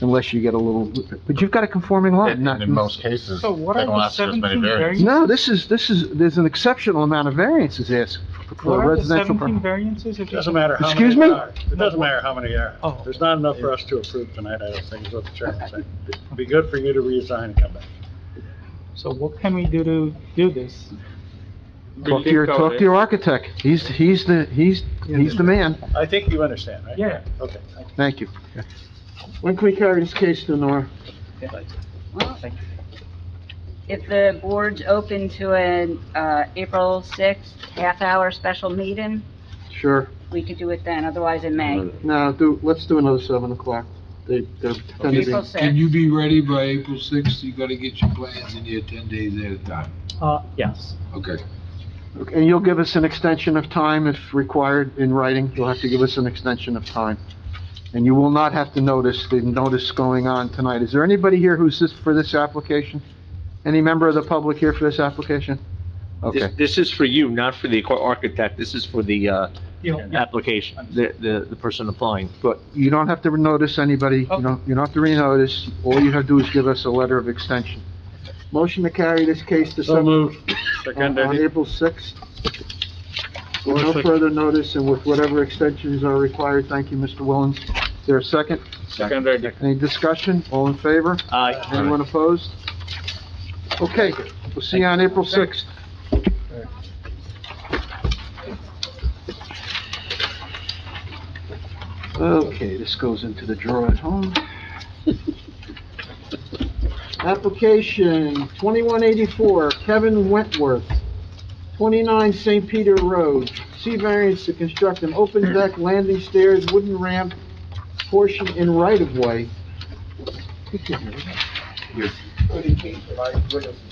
unless you get a little, but you've got a conforming lot, In not... in most cases, they So what are don't the ask for as many seventeen variants. variances? No, this is, this is, there's an exceptional amount of variances asked for What a are the residential... seventeen pro- variances? if It you- Doesn't matter how many Excuse there me? are. It doesn't matter how many there Oh. are. There's not enough for us to approve tonight, I don't think, is what the chairman said. It'd be good for you to resign and come back. So what can we do to do this? Talk to your, talk to your architect. He's, he's the, he's, he's the man. I think you understand, right? Yeah. Okay, thank Thank you. When can we carry this case to Nora? Well, If the board's open to an, uh, April sixth, half-hour special meeting, Sure. we could do it then, otherwise in May. No, do, let's do another seven o'clock. They, they're tend to April be, Can sixth. you be ready by April sixth? You gotta get your plans in here ten days at a time. Uh, yes. Okay. and you'll give us an extension of time if required in writing. You'll have to give us an extension of time. And you will not have to notice the notice going on tonight. Is there anybody here who's this, for this application? Any member of the public here for this application? This, Okay, this is for you, not for the aqua- architect, this is for the, uh, application, the, the, the person applying, but you don't have to notice anybody, you don't, you don't have to renotice. All you have to do is give us a letter of extension. Motion to carry this case to you. So seven moved. on Second, on any- April 6th. With no further notice and with whatever extensions are required, thank you, Mr. Willens. Is there a second? second, any- Any discussion? All in favor? I, Anyone opposed? Okay, we'll see you on April 6th. Okay, this goes into the drawer at home. Application 2184, Kevin Wentworth, 29 St. Peter Road. C variance to construct an open deck, landing stairs, wooden ramp, portion in right-of-way.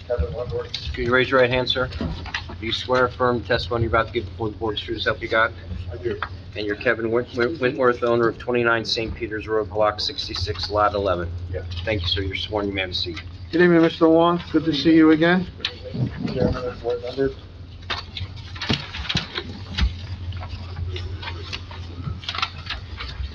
Can you raise your right hand, sir? Do you swear affirm testimony you're about to give before the board is true to self you got? I do. And you're Kevin Went- Went- Wentworth, owner of 29 St. Peters Road, Block 66, Lot 11? Yeah. Thank you, sir. You're sworn. You may have a seat. Good evening, Mr. Long. Good to see you again. chairman of board members.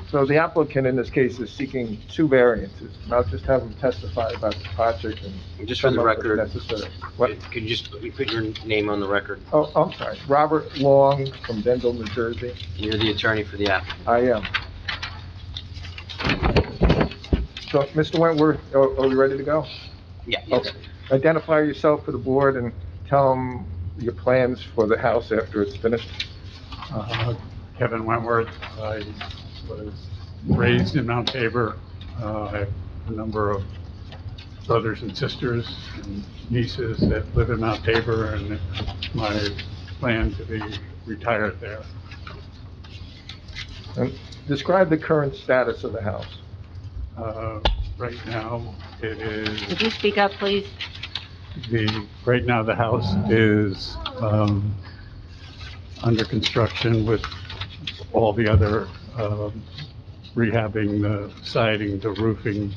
So the applicant in this case is seeking two variances, and I'll just have him testify about the project and And Just for some the of the record, necessary. What, could you just you put your name on the record? oh, I'm sorry, Robert Long from Dendel, New Jersey. You're the attorney for the applicant. I am. So, Mr. Wentworth, are are we ready to go? Yeah. Okay. Identify yourself for the board and tell them your plans for the house after it's finished. Uh, Kevin Wentworth. I was raised in Mount Tabor. Uh, I have a number of brothers and sisters and nieces that live in Mount Tabor, and it's my plan to be retired there. And describe the current status of the house. Uh, Right now, it is, Could you speak up, please? the, right now, the house is um, under construction with all the other um, rehabbing, the siding, the roofing,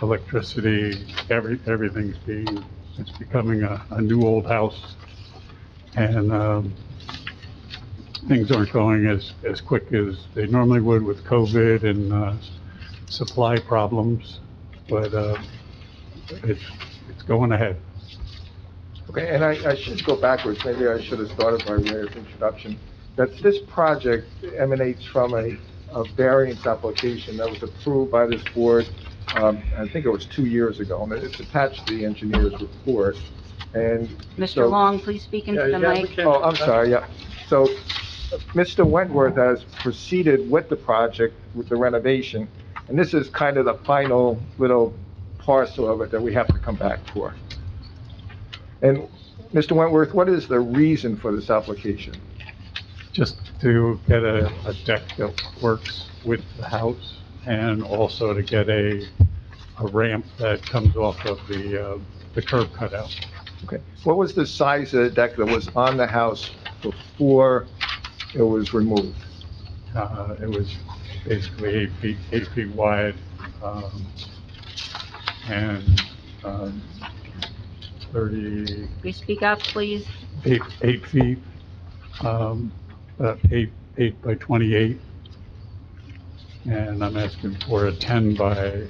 electricity, every, everything's being, it's becoming a, a new old house. And, um, things aren't going as, as quick as they normally would with COVID and, uh, supply problems, but, uh, it's, it's going ahead. Okay, and I, I should go backwards, maybe I should have started by way of introduction, that this project emanates from a, a variance application that was approved by this board, um, I think it was two years ago, and it's attached to the engineer's report, and. so- Mr. Long, please speak into the Yeah, yeah, we mic. can- Oh, I'm sorry, yeah. So, Mr. Wentworth has proceeded with the project, with the renovation, and this is kind of the final little parcel of it that we have to come back for. And, Mr. Wentworth, what is the reason for this application? just to get a, a deck that works with the house and also to get a, a ramp that comes off of the, uh, the curb cutout. Okay, what was the size of the deck that was on the house before it was removed? Uh, it was basically eight feet, eight feet wide, um, and, um, thirty, Could you speak up, please? eight, eight feet, um, uh, eight, eight by twenty-eight. And I'm asking for a ten by